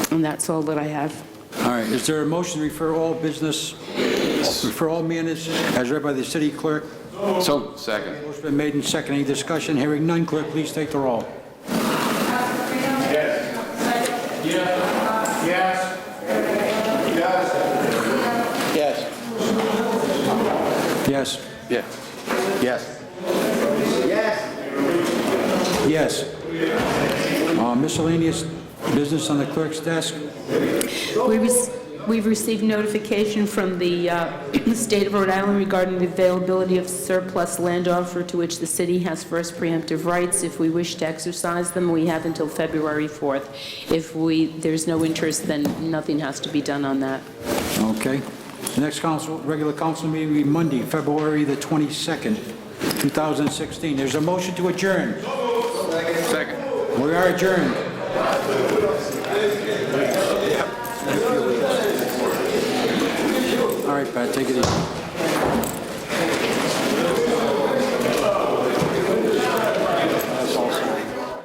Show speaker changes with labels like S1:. S1: And that's all that I have.
S2: All right, is there a motion to refer all business, refer all matters as read by the city clerk?
S3: So, second.
S2: Motion been made and seconded. Any discussion? Hearing none. Clerk, please take the roll.
S3: Yes.
S2: Yes.
S3: Yeah. Yes.
S2: Yes. Uh, Miscellaneous business on the clerk's desk?
S1: We rec- We've received notification from the uh, State of Rhode Island regarding the availability of surplus land offer to which the city has first preemptive rights. If we wish to exercise them, we have until February 4th. If we, there's no interest, then nothing has to be done on that.
S2: Okay. The next council, regular council meeting will be Monday, February the 22nd, 2016. There's a motion to adjourn.
S3: Second.
S2: We are adjourned. All right, Pat, take it easy.